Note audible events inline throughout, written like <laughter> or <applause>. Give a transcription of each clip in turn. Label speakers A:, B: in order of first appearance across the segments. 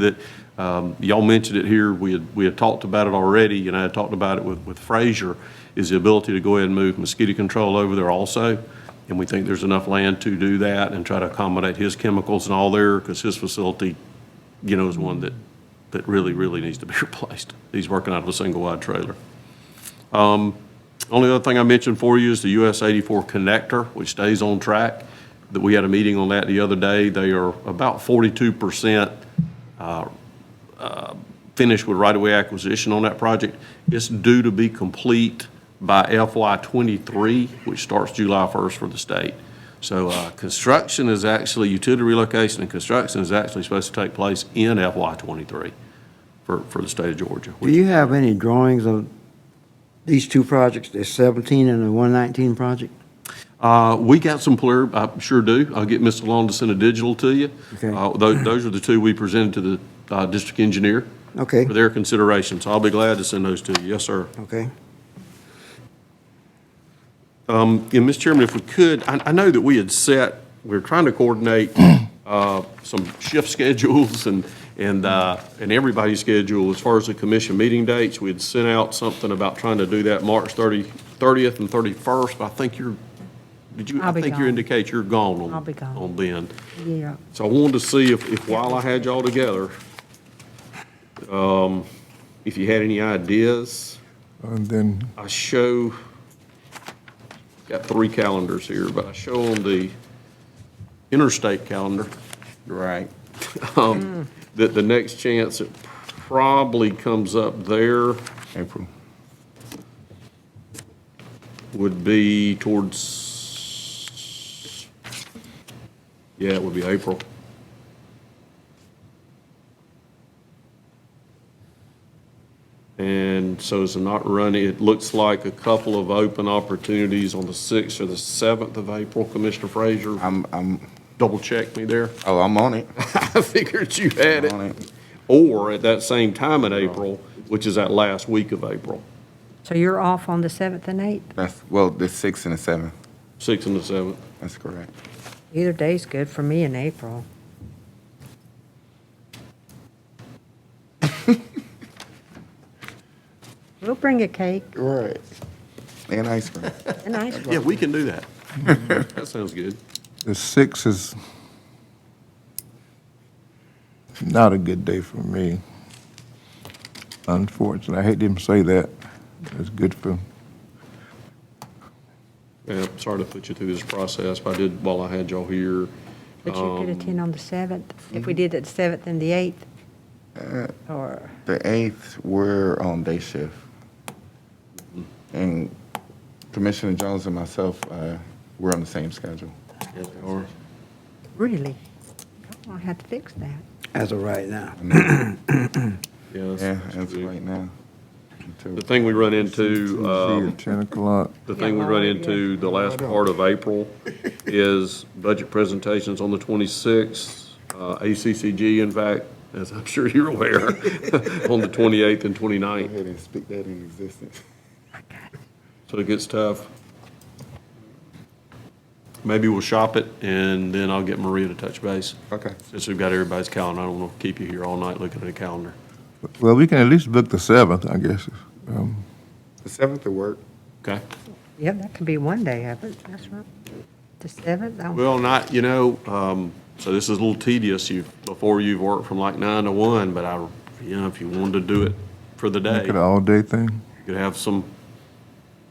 A: that, um, y'all mentioned it here, we had, we had talked about it already, and I had talked about it with, with Frazier, is the ability to go ahead and move mosquito control over there also. And we think there's enough land to do that and try to accommodate his chemicals and all there, because his facility, you know, is one that, that really, really needs to be <laughs> replaced. He's working out of a single wide trailer. Only other thing I mentioned for you is the US 84 connector, which stays on track. That we had a meeting on that the other day. They are about 42% uh, uh, finished with right-of-way acquisition on that project. It's due to be complete by FY '23, which starts July 1st for the state. So uh, construction is actually, utility relocation and construction is actually supposed to take place in FY '23 for, for the state of Georgia.
B: Do you have any drawings of these two projects, the 17 and the 119 project?
A: Uh, We got some clear, I sure do. I'll get Mr. Long to send a digital to you.
B: Okay.
A: Uh, tho- Those are the two we presented to the uh, district engineer
B: Okay,
A: for their consideration, so I'll be glad to send those to you. Yes, sir.
B: okay.
A: And, Mr. Chairman, if we could, I I know that we had set, we were trying to coordinate <clears throat> uh, some shift <laughs> schedules and, and, uh, and everybody's schedule as far as the commission meeting dates. We had sent out something about trying to do that March 30 30th and 31st, but I think you're, did you, I
C: I'll be
A: think you
C: gone.
A: indicate you're gone on.
C: I'll be gone.
A: On then.
C: Yeah,
A: So I wanted to see if, if while I had y'all together, um, if you had any ideas.
D: And then,
A: I show, got three calendars here, but I show on the interstate calendar. Right. <laughs> um, That the next chance it probably comes up there
D: April,
A: would be towards, yeah, it would be April. And so it's not running, it looks like a couple of open opportunities on the 6th or the 7th of April, Commissioner Frazier.
E: I'm, I'm,
A: Double check me there.
E: oh, I'm on it.
A: <laughs>
E: <laughs>
A: I figured you had
E: On
A: it.
E: it.
A: Or at that same time in April, which is that last week of April,
C: so you're off on the 7th and 8th?
E: That's, well, the sixth and the seventh.
A: 6th and the 7th.
E: That's correct.
C: Either day's good for me in April. We'll bring a cake
E: Right. And ice cream.
C: and ice cream.
A: Yeah, we can do that. <laughs> That sounds good.
D: the 6th is not a good day for me, unfortunately. I hate to even say that. It's good for,
A: Yeah, sorry to put you through this process, but I did while I had y'all here.
C: But you could attend on the 7th, if
A: Mm-hmm.
C: we did it the 7th and the 8th.
A: Uh,
C: Or,
E: The eighth, we're on day shift. And Commissioner Jones and myself, uh, we're on the same schedule.
A: Or-
C: really? I'm gonna have to fix that.
B: As of right now.
A: Yeah, that's-
E: Yeah,
A: that's
E: as of
A: good.
E: right now. Until-
A: The thing we run into, um,
D: 10 o'clock.
A: the thing we run into the last part of April is budget presentations on the 26th, uh, ACCG, in fact, as I'm sure you're aware, <laughs> on the 28th and
E: Go
A: 29th.
E: ahead and speak that in existence.
A: So it gets tough. Maybe we'll shop it, and then I'll get Maria to touch base.
E: Okay.
A: Since we've got everybody's calendar, I don't want to keep you here all night looking at a calendar.
D: Well, we can at least book the 7th, I guess. Um,
E: The seventh will work.
A: Okay?
C: Yep, that could be one day of it, that's right. The 7th, I'm-
A: Well, not, you know, um, so this is a little tedious. You, before you've worked from like nine to one, but I, you know, if you wanted to do it for the day,
D: Make it an
A: you
D: all-day thing.
A: could have some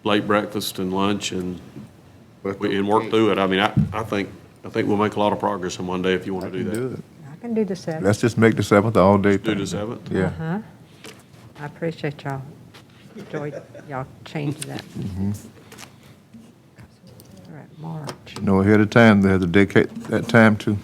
A: late breakfast and lunch and,
E: But
A: and work through it. I mean, I, I think, I think we'll make a lot of progress in one day if you want to do that.
D: it.
C: I can do the 7th.
D: Let's just make the 7th an all-day
A: Do
D: thing.
A: the seventh?
D: Yeah.
C: Huh? I appreciate y'all. Enjoyed y'all changing that. All right, March.
D: Know ahead of time, they have to dedicate that time to.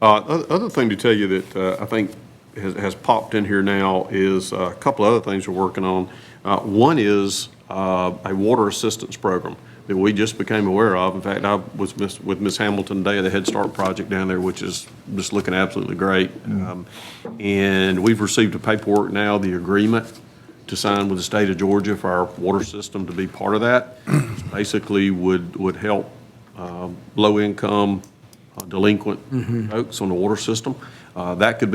A: Uh, oth- Other thing to tell you that uh, I think has- has popped in here now is uh, a couple of other things we're working on. Uh, One is uh, a water assistance program that we just became aware of. In fact, I was miss- with Ms. Hamilton today at the Head Start project down there, which is just looking absolutely great. Um, And we've received the paperwork now, the agreement to sign with the state of Georgia for our water system to be part of that. Basically would, would help um, low-income uh, delinquent folks on the water system. Uh, That could be